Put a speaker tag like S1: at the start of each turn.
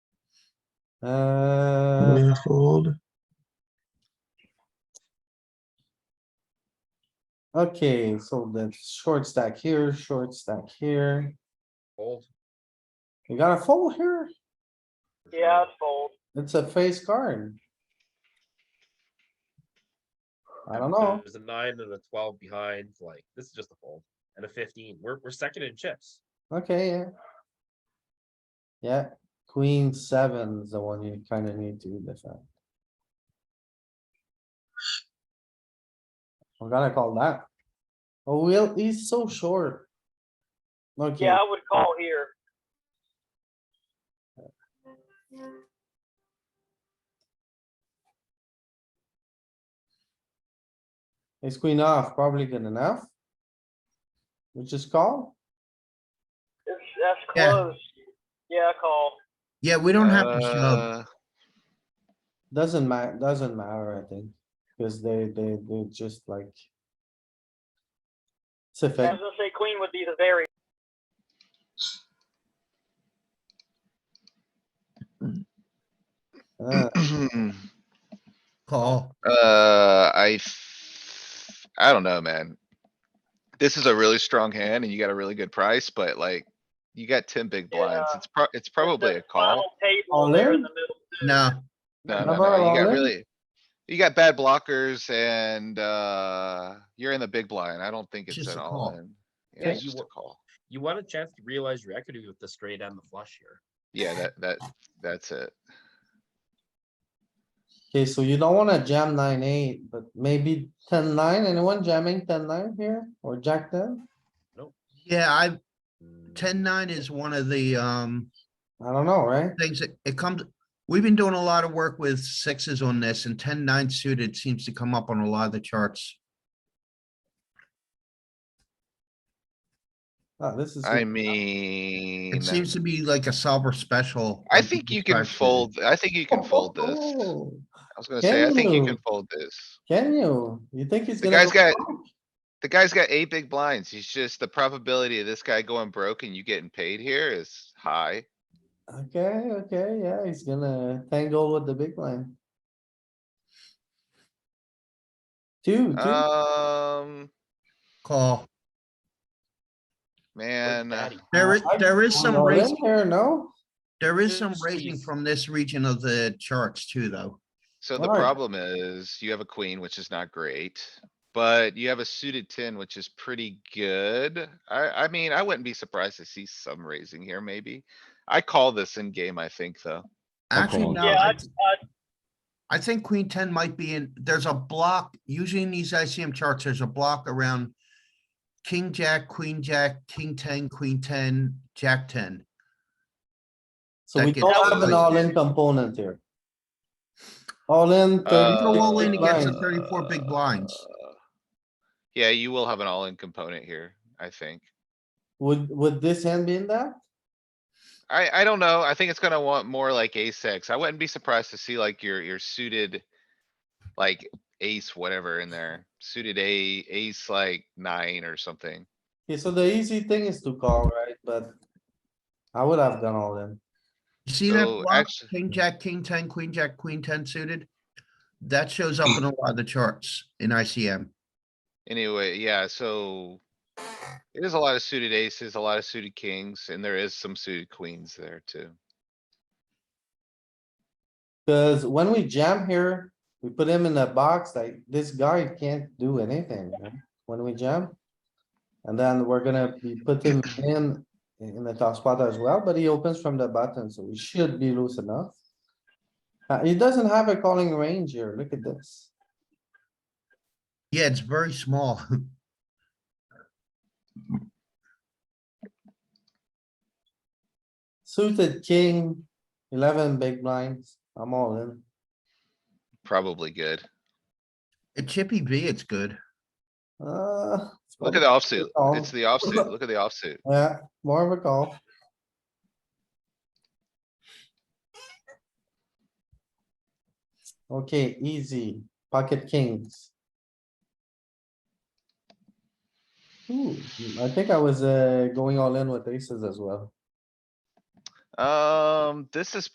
S1: Uh,
S2: Gonna fold.
S1: okay, so the short stack here, short stack here.
S3: Fold.
S1: You got a fold here?
S4: Yeah, it's fold.
S1: It's a face card. I don't
S3: And
S1: know.
S3: There's a nine and a twelve behind, like, this is just a fold, and a fifteen, we're, we're second in chips.
S1: Okay, yeah. Yeah, queen seven is the one you kinda need to defend. We're gonna call that. Oh, well, he's so short. Okay,
S4: Yeah, I would call here.
S1: ace queen off, probably good enough. We just call?
S4: It's, that's
S5: Yeah.
S4: close. Yeah, call.
S5: Yeah, we don't have to
S6: Uh,
S5: shove.
S1: Doesn't ma- doesn't matter, I think, cuz they, they, they just like. It's a
S4: I
S1: fact.
S4: was gonna say queen would be the very.
S1: Uh,
S5: Call.
S6: Uh, I, f- I don't know, man. This is a really strong hand and you got a really good price, but like, you got ten big blinds.
S4: Yeah.
S6: It's pro, it's probably a
S4: that
S6: call.
S4: final Table
S1: All
S4: there
S1: in?
S4: in the middle.
S5: No,
S6: No,
S1: How
S6: no,
S1: about
S6: no, you
S1: all
S6: got
S1: in?
S6: really, you got bad blockers and, uh, you're in the big blind. I don't think it's
S5: Just
S6: an
S5: a
S6: all
S5: call.
S6: in. Yeah, it's
S3: Okay.
S6: just a call.
S3: You want a chance to realize your equity with the straight and the flush here.
S6: Yeah, that, that, that's it.
S1: Okay, so you don't wanna jam nine, eight, but maybe ten, nine, anyone jamming ten, nine here or jack ten?
S5: yeah, I, ten nine is one of the, um,
S1: I don't know, right?
S5: things that, it comes, we've been doing a lot of work with sixes on this and ten nine suited seems to come up on a lot of the charts.
S1: Ah, this is.
S6: I
S5: It
S6: mean,
S5: seems to be like a solver special.
S6: I
S5: on
S6: think
S5: people's
S6: you can
S5: charts.
S6: fold, I think you can fold this. I
S1: Oh,
S6: was gonna say, I think you can
S1: Hello.
S6: fold this.
S1: Can you? You think he's
S6: The
S1: gonna?
S6: guy's
S1: go
S6: got, the guy's got eight big blinds. He's just, the probability of this guy going broke and you getting paid here is high.
S1: Okay, okay, yeah, he's gonna tangle with the big line. Two, two,
S5: Uh,
S6: Um,
S5: Call.
S6: man, uh,
S3: Daddy.
S5: There is,
S1: I-
S5: there is some
S1: all in
S5: raising,
S1: here, no?
S5: there is some
S3: Just
S5: raising
S3: squeeze.
S5: from this region of the charts too, though.
S6: so the
S1: Alright.
S6: problem is you have a queen, which is not great. But you have a suited ten, which is pretty good. I, I mean, I wouldn't be surprised to see some raising here, maybe. I call this in game, I think, though.
S5: Actually,
S7: calling.
S5: no,
S4: Yeah,
S5: I
S4: I'd, I'd,
S5: I think queen ten might be in, there's a block, usually in these ICM charts, there's a block around king, jack, queen, jack, king ten, queen ten, jack ten.
S1: So we
S5: That
S1: don't
S4: gets
S1: have an
S5: like-
S1: all-in component here. All in.
S6: Uh,
S5: You go all in against the
S1: line.
S5: thirty-four big blinds.
S6: Yeah, you will have an all-in component here, I think.
S1: Would, would this hand be in that?
S6: I, I don't know. I think it's gonna want more like ace X. I wouldn't be surprised to see like your, your suited. Like ace, whatever in there, suited a, ace like nine or something.
S1: Okay, so the easy thing is to call, right? But I would have gone all in.
S5: You see that
S6: So
S5: block,
S6: actu-
S5: king, jack, king ten, queen, jack, queen ten suited? That shows up in a lot of the charts in ICM.
S6: Anyway, yeah, so. It is a lot of suited aces, a lot of suited kings, and there is some suited queens there too.
S1: Cause when we jam here, we put him in a box, like this guy can't do anything right? when we jam. And then we're gonna be put him in, in the top spot as well, but he opens from the button, so we should be loose enough. Uh, he doesn't have a calling range here. Look at this.
S5: Yeah, it's very small.
S1: Suited king, eleven big blinds. I'm all in.
S6: Probably good.
S5: At Chippy V, it's good.
S1: Uh, it's
S6: Look at the
S1: probably-
S6: offsuit.
S1: call.
S6: It's the offsuit. Look at the offsuit.
S1: Yeah, more of a call. Okay, easy, pocket kings. Ooh, I think I was, uh, going all in with aces as well.
S6: Um, this is